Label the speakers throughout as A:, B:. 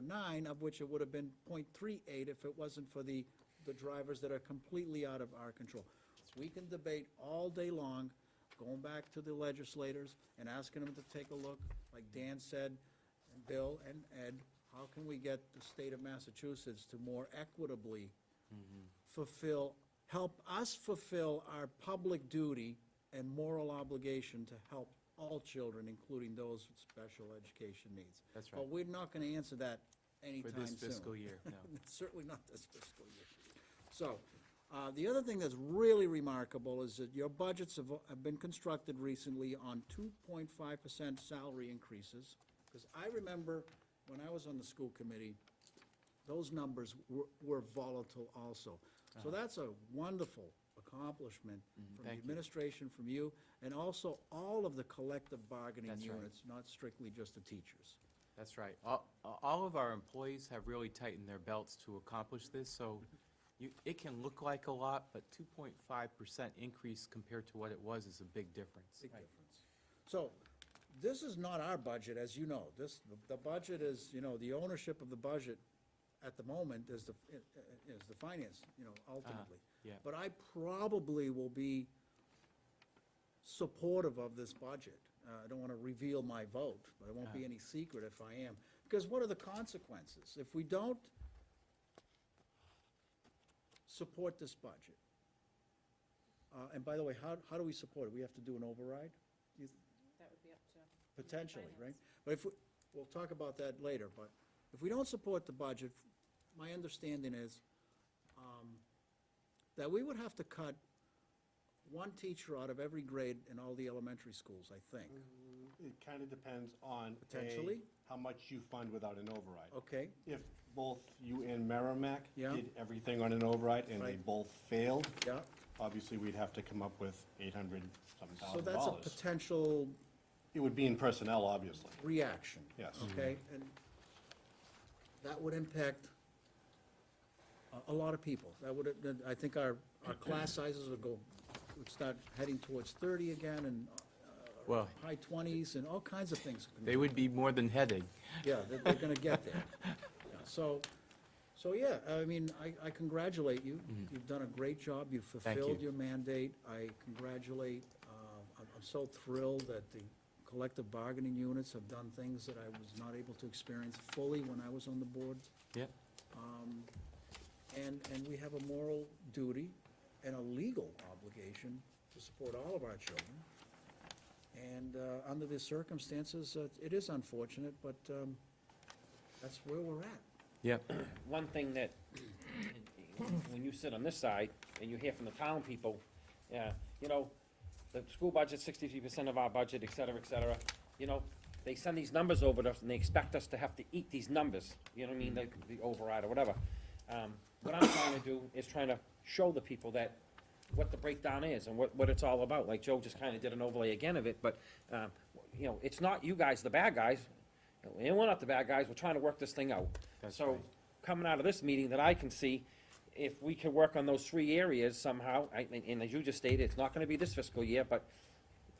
A: .49, of which it would have been .38 if it wasn't for the, the drivers that are completely out of our control. We can debate all day long, going back to the legislators and asking them to take a look, like Dan said, and Bill and Ed, how can we get the state of Massachusetts to more equitably fulfill, help us fulfill our public duty and moral obligation to help all children, including those with special education needs.
B: That's
A: But
B: right.
A: we're not gonna answer that
B: For
A: anytime soon.
B: this fiscal year, no.
A: Certainly not this fiscal year. So, uh, the other thing that's really remarkable is that your budgets have, have been constructed recently on two point five percent salary increases. Because I remember when I was on the school committee, those numbers were, were volatile also. So that's a wonderful accomplishment from the
B: Uh-huh. Mm-hmm. thank you.
A: administration, from you, and also all of the collective bargaining
B: That's right.
A: units, not strictly just the teachers.
B: That's right. All, all of our employees have really tightened their belts to accomplish this, so you, it can look like a lot, but two point five percent increase compared to what it was is a big difference.
A: Big difference. So, this is not our budget, as you know. This, the budget is, you know, the ownership of the budget at the moment is the, is the finance, you know, ultimately.
B: yeah.
A: But I probably will be supportive of this budget. Uh, I don't want to reveal my vote, but it won't be any secret if I am. Because what are the consequences? If we don't support this budget, uh, and by the way, how, how do we support it? We have to do an override? Do you-
C: That would be up to.
A: Potentially, right? But if, we- we'll talk about that later, but if we don't support the budget, my understanding is um, that we would have to cut one teacher out of every grade in all the elementary schools, I think.
D: It kind of depends on. A,
A: Potentially.
D: How much you fund without an override.
A: Okay,
D: If both you and Merrimack
A: Yeah.
D: did everything on an override and they
A: Right.
D: both failed,
A: yeah.
D: obviously we'd have to come up with eight hundred some
A: So
D: thousand
A: that's a
D: dollars.
A: potential
D: It would be in personnel, obviously.
A: reaction.
D: Yes.
A: Okay, and that would impact a, a lot of people. That would, that- I think our, our class sizes would go, would start heading towards thirty again and
B: Well,
A: high twenties and all kinds of things.
B: they would be more than heading.
A: Yeah, they're, they're gonna get there. Yeah, So, so yeah, I mean, I, I congratulate you. You've done a great job. You've fulfilled
B: Mm-hmm. you.
A: your mandate. I congratulate, uh, I'm, I'm so thrilled that the collective bargaining units have done things that I was not able to experience fully when I was on the board.
B: Yeah,
A: And, and we have a moral duty and a legal obligation to support all of our children. And uh, under the circumstances, uh, it is unfortunate, but um, that's where we're at.
B: yeah.
E: one thing that, when you sit on this side and you hear from the town people, yeah, you know, the school budget's sixty-three percent of our budget, et cetera, et cetera, you know, they send these numbers over to us and they expect us to have to eat these numbers, you know what I mean, like the override or whatever. Um, what I'm trying to do is trying to show the people that what the breakdown is and what, what it's all about, like Joe just kinda did an overlay again of it, but, um, you know, it's not you guys, the bad guys, and we're not the bad guys, we're trying to work this thing out.
B: That's
E: So,
B: right.
E: coming out of this meeting that I can see, if we can work on those three areas somehow, I, and- and as you just stated, it's not gonna be this fiscal year, but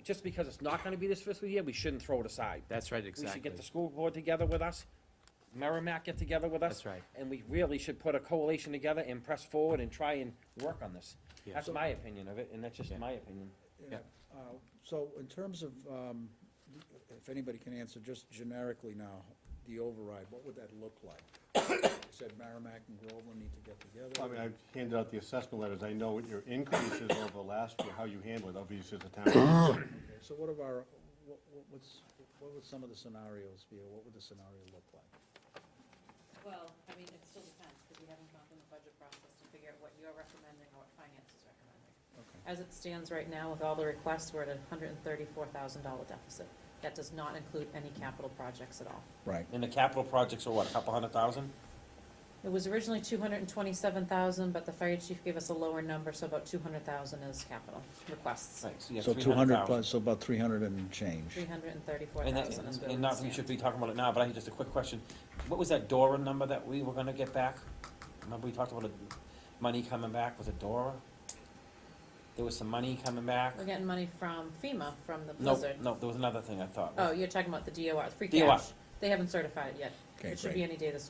E: just because it's not gonna be this fiscal year, we shouldn't throw it aside.
B: That's right,
E: We should
B: exactly.
E: get the school board together with us, Merrimack get together with us.
B: That's right.
E: And we really should put a coalition together and press forward and try and work on this.
B: Yeah.
E: That's my opinion of it, and that's just
B: Yeah.
E: my opinion.
B: Yeah.
A: Uh, So in terms of, um, if anybody can answer, just generically now, the override, what would that look like? You Said Merrimack and Groveland need to get
D: I mean,
A: together.
D: I've handed out the assessment letters. I know what your increases over last year, how you handle it, obviously as a town.
A: Okay, So what of our, what, what- what's, what would some of the scenarios be, or what would the scenario look like?
C: Well, I mean, it still depends, because we haven't gone through the budget process to figure out what you're recommending or what finance is recommending.
A: Okay.
C: As it stands right now, with all the requests, we're at a hundred and thirty-four thousand dollar deficit. That does not include any capital projects at all.
A: Right.
E: And the capital projects are what, a couple hundred thousand?
C: It was originally two hundred and twenty-seven thousand, but the fire chief gave us a lower number, so about two hundred thousand is capital requests.
E: Thanks, yeah,
A: So
E: three
A: two hundred
E: thousand.
A: plus, so about three hundred and change.
C: Three hundred and thirty-four
E: And that,
C: thousand is where
E: and
C: we
E: not, we should
C: stand.
E: be talking about it now, but I had just a quick question. What was that DORA number that we were gonna get back? Remember we talked about a- money coming back, was it DORA? There was some money coming back?
C: We're getting money from FEMA, from the
E: No,
C: blizzard.
E: no, there was another thing I thought.
C: Oh, you're talking about the DOR, free
E: DOR.
C: cash. They haven't certified it yet.
A: Okay,
C: It should be
A: great.
C: any day this